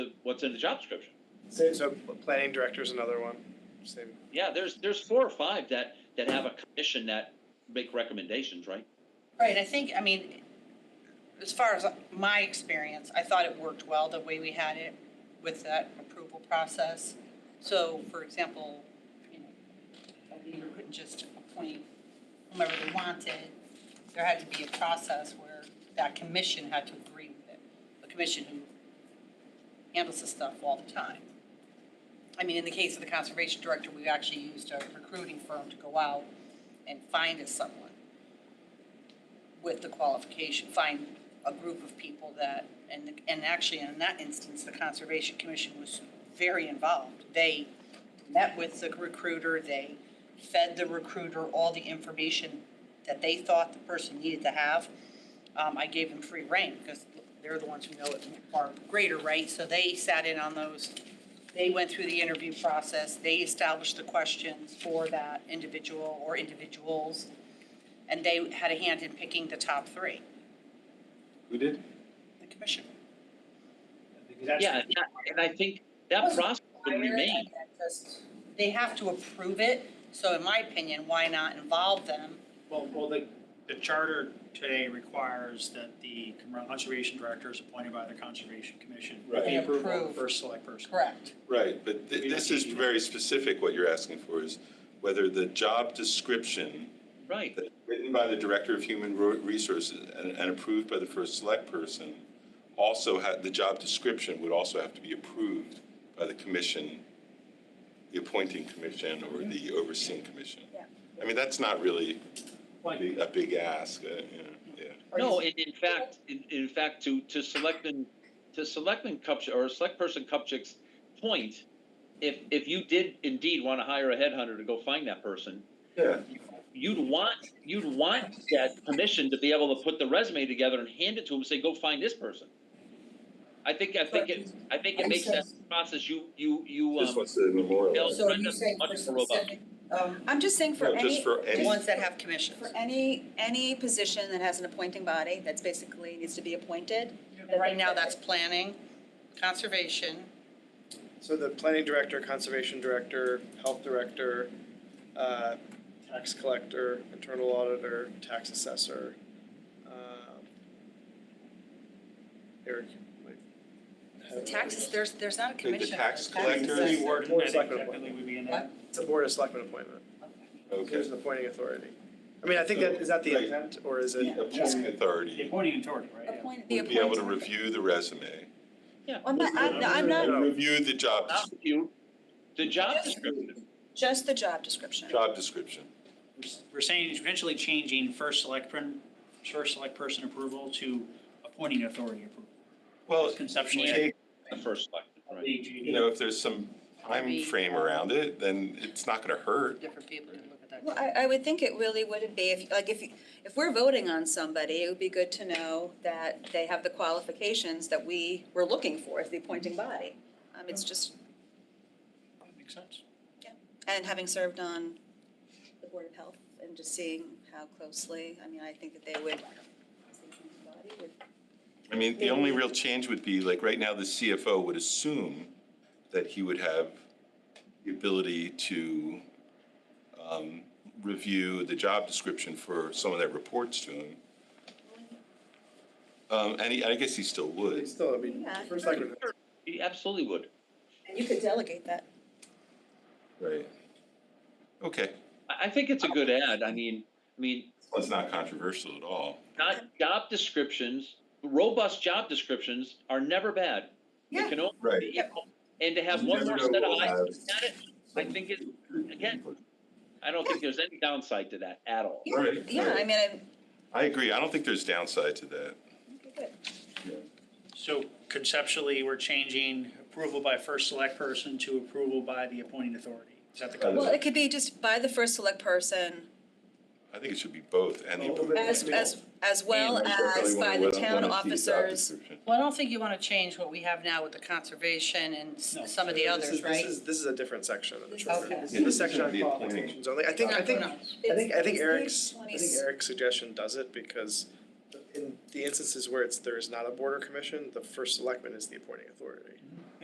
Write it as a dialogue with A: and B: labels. A: what's in the job description.
B: Same, so planning director is another one, same.
A: Yeah, there's, there's four or five that, that have a commission that make recommendations, right?
C: Right, I think, I mean, as far as my experience, I thought it worked well the way we had it with that approval process. So, for example, you know, a leader couldn't just appoint whomever they wanted. There had to be a process where that commission had to agree with it, the commission who handles this stuff all the time. I mean, in the case of the conservation director, we actually used a recruiting firm to go out and find us someone with the qualification, find a group of people that, and, and actually in that instance, the Conservation Commission was very involved. They met with the recruiter, they fed the recruiter all the information that they thought the person needed to have. Um, I gave them free rein because they're the ones who know it far greater, right? So they sat in on those, they went through the interview process, they established the questions for that individual or individuals and they had a hand in picking the top three,
D: Who did?
C: the commission.
D: Because that's-
A: Yeah, and I- and I think that process would remain.
C: They have to approve it, so in my opinion, why not involve them?
E: Well, well, the, the charter today requires that the conservation director is appointed by the conservation commission. with
C: Right.
E: The approval of
C: Approved.
E: the first select person.
C: Correct.
F: Right, but
E: We
F: thi- this
E: don't
F: is
E: need-
F: very specific, what you're asking for is whether the job description
A: Right,
F: that's written by the Director of Human Ro- Resources and, and approved by the first select person also had, the job description would also have to be approved by the commission, the appointing commission or the overseeing commission.
C: Yeah.
F: I mean, that's not really a
E: Like,
F: big- a big ask, uh, you know, yeah.
A: no, and in fact, in, in fact, to, to selectmen, to selectmen Kupch, or select person Kupchik's point, if, if you did indeed want to hire a headhunter to go find that person,
F: Yeah.
A: you'd want, you'd want that commission to be able to put the resume together and hand it to him, and say, go find this person. I think, I think it, I think it
C: I'm
A: makes
C: sure-
A: that process you, you, you,
F: Just
A: um,
F: wants to memorialize.
C: So are you
A: Brenda's
C: saying
A: much
C: for
A: more robust.
C: specific, um,
G: I'm just saying for
F: No, just
G: any,
F: for
C: the
F: any.
C: ones that have commissions?
G: for any, any position that has an appointing body that's basically needs to be appointed.
C: Right now, that's planning, conservation,
B: So the planning director, conservation director, health director, uh, tax collector, internal auditor, tax assessor. um, Eric, like. head of-
G: Taxes, there's, there's not a
F: Like the
G: commission. for
F: tax
G: a
F: collector.
G: assessor.
E: Three word,
B: Board
E: I
B: of
E: think
B: Selectmen
E: technically would be in there.
B: It's a board of selectmen appointment. There's
F: Okay.
B: an appointing authority. I mean, I think that, is that the
F: Right.
B: intent or is it?
F: Appointing
E: The
F: authority
E: appointing authority, right? yeah.
G: Appoint, the
F: would be able to
G: appointing-
F: review the resume.
G: I'm not, I'm not- I'm not,
B: No.
F: Review the job,
A: not
F: des-
A: you, the job description,
G: just the job description.
F: job description.
E: We're s- We're saying potentially changing first select, prin- first select person approval to appointing authority approval.
F: Well,
E: Conceptually, I-
F: take,
A: the first selectman, right?
F: you know, if there's some time
C: Maybe.
F: frame around it, then it's not gonna hurt.
C: different people can look at that.
G: Well, I, I would think it really wouldn't be, if, like, if, if we're voting on somebody, it would be good to know that they have the qualifications that we were looking for as the appointing body. Um, it's just,
E: That Makes sense.
G: and having served on the Board of Health and just seeing how closely, I mean, I think that they would, as the appointing body, would
F: I mean, the only real change would be, like, right now, the CFO would assume that he would have the ability to um, review the job description for someone that reports to him. Um, and he, I guess he still would.
B: It's still, I mean,
G: Yeah.
B: first selectman.
A: He absolutely would.
G: And you could delegate that.
F: Right. Okay,
A: I, I think it's a good ad. I mean, I mean,
F: Well, it's not controversial at all.
A: not job descriptions, robust job descriptions are never bad. They
C: Yeah.
A: can only
F: Right.
A: be- And to have
F: You
A: one
F: never
A: more
F: know
A: set of
F: what we'll
A: eyes
F: have.
A: at it, I think it, again, I don't think there's any downside to that at all.
G: Yeah,
F: Right,
G: yeah, I
F: right.
G: mean, I,
F: I agree. I don't think there's downside to that.
G: good.
E: So conceptually, we're changing approval by first select person to approval by the appointing authority. Is that the
F: Right.
G: Well,
E: concept?
G: it could be just by the first select person,
F: I think it should be both and the.
B: Well,
F: approval.
G: as, as, as well
F: And I
G: as
F: definitely wanna
G: by the
F: let-
G: town
F: wanna see the job
G: officers.
F: description.
C: Well, I don't think you want to change what we have now with the conservation and s-
E: No.
C: some of the
B: This
C: others,
B: is- This
C: right?
B: is, this is a different section of the
G: This is-
B: charter.
C: Okay.
B: This
F: Yeah,
B: is the
F: this
B: section
F: is
B: on
F: the appointing.
B: qualifications only. I think, I think,
C: No, no.
B: I think, I think
G: It's- it's
B: Eric's, I
G: page
B: think
G: 20.
B: Eric's suggestion does it because in the instances where it's, there is not a border commission, the first selectman is the appointing authority.